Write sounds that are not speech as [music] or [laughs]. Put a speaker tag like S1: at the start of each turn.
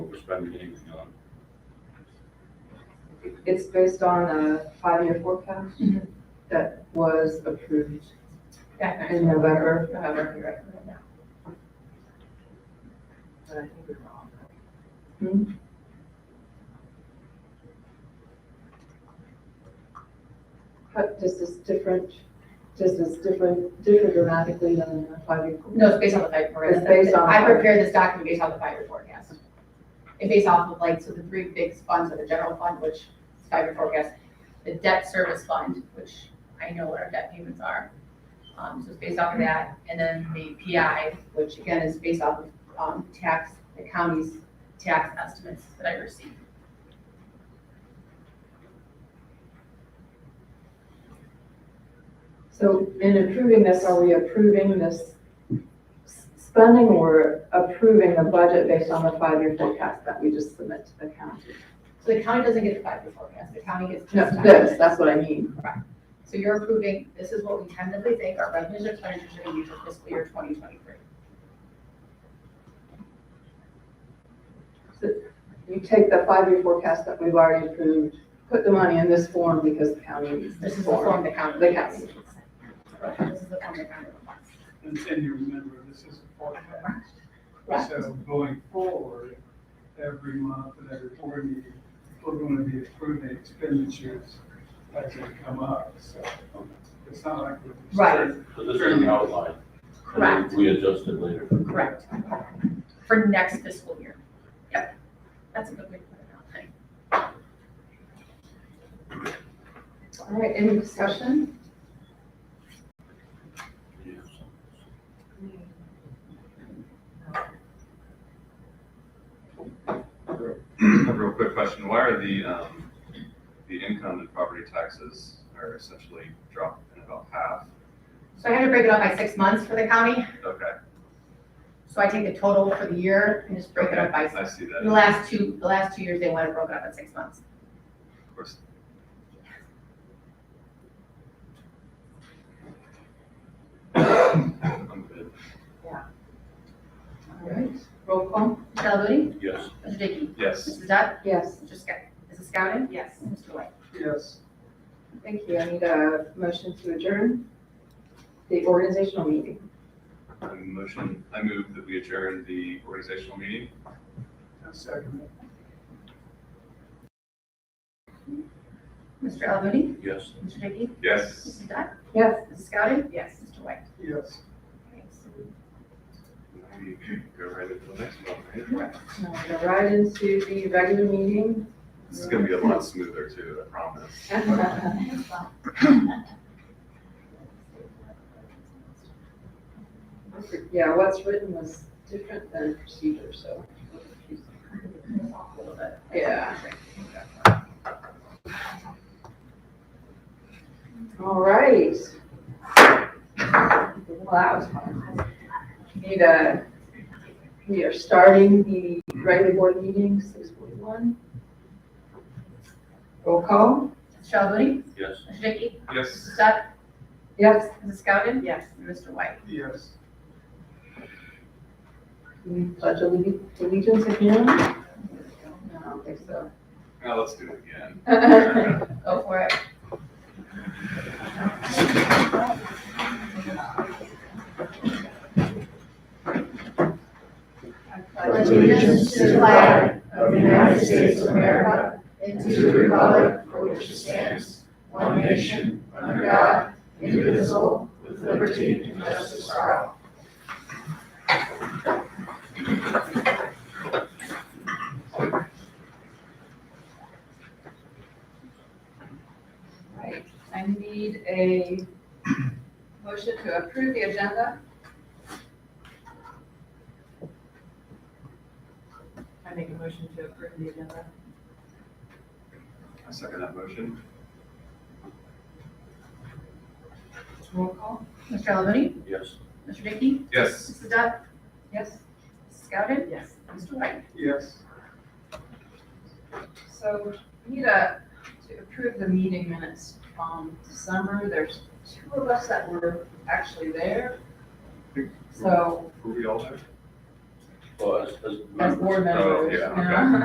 S1: trying to get anything on.
S2: It's based on a five-year forecast that was approved
S3: That
S2: in November.
S3: However, you recommend that.
S2: but I think we're wrong. How, does this different, does this different, differ dramatically than a five-year
S3: No,
S2: forecast?
S3: it's based on the five
S2: It's based
S3: forecast.
S2: on-
S3: I prepared this document based on the five-year forecast. It's based off of like, so the three big funds are the general fund, which is five-year forecast, the debt service fund, which I know what our debt payments are. Um, so it's based off of that, and then the PI, which again is based off of, um, tax, the county's tax estimates that I received.
S2: So in approving this, are we approving this s- spending or approving the budget based on the five-year forecast that we just submit to the county?
S3: So the county doesn't get the five-year forecast, the county gets
S2: No,
S3: just.
S2: this, that's what I mean.
S3: So you're approving, this is what we tentatively think our revenues and expenditures are gonna be for fiscal year twenty twenty-three.
S2: You take the five-year forecast that we've already approved, put the money in this form because the county needs
S3: This
S2: this
S3: is the
S2: form.
S3: form the county.
S2: The county.
S3: This is the form the county. wants.
S4: And and you remember, this is a forecast.
S3: Right.
S4: So going forward, every month and every board meeting, we're going to be approving expenditures as they come up, so it's not like we're. just-
S3: Right.
S5: So this is an outline. and then
S3: Correct.
S5: We adjust it later.
S3: Correct. For next fiscal year. Yep. That's a good way to put it out. Thank
S2: All right, any discussion?
S6: A real quick question, why are the, um, the income and property taxes are essentially dropped in about half?
S3: you. So I had to break it up by six months for the county.
S6: Okay,
S3: So I take the total for the year and just break it up by,
S6: I see that,
S3: the
S6: of
S3: last two, the last two years, they wanted it broken up at six months.
S6: course. I'm good.
S2: All right, roll call?
S3: Mr. Delavudi?
S5: Yes,
S3: Mr. Dickey?
S6: Yes,
S3: Mrs. Dutt?
S2: Yes.
S3: Mr. Scout? Mrs. Scowden? Yes. Mr. White?
S4: Yes,
S2: Thank you. I need a motion to adjourn the organizational meeting.
S6: I motion, I move that we adjourn the organizational meeting.
S4: I second it.
S3: Mr. Delavudi?
S5: yes.
S3: Mr. Dickey?
S6: Yes.
S3: Mrs. Dutt?
S2: Yes.
S3: Mrs. Scowden? Yes. Mr. White?
S4: Yes.
S6: We Go right into the next one, right?
S2: Now we're gonna right into the regular [laughs] meeting.
S6: This is gonna be a lot smoother too, I promise.
S2: [laughs] Yeah, what's written was different than procedure, so.
S3: A little bit.
S2: Yeah. All right. Wow. Need a, we are starting the regular board meeting, six forty-one. Roll call?
S3: Mr. Delavudi?
S5: Yes.
S3: Mr. Dickey?
S6: Yes.
S3: Mrs. Dutt?
S2: Yes.
S3: Mrs. Scowden? Yes. And Mr. White? [laughs]
S4: Yes.
S2: We Pledge allegiance allegiance again? No, I don't think so.
S6: Now let's do it again.
S3: Go for it.
S7: pledge allegiance to the flag of the United States of America and to the republic for which it stands, one nation, under God, indivisible, with liberty and justice for all.
S2: Right, I need a motion to approve the agenda.
S8: I make a motion to approve the agenda.
S6: I second that motion.
S2: Roll call?
S3: Mr. Alavani?
S5: Yes.
S3: Mr. Dickey?
S6: Yes.
S3: Mrs. Dutt?
S2: Yes.
S3: Mrs. Scowden?
S8: Yes.
S3: Mr. White?
S4: Yes.
S2: So we need a, to approve the meeting minutes from December. There's two of us that were actually there. So
S6: Were we all there?
S5: Well, as, as
S2: as
S5: members.
S2: board members,
S6: Oh, yeah,
S2: you know?
S6: okay.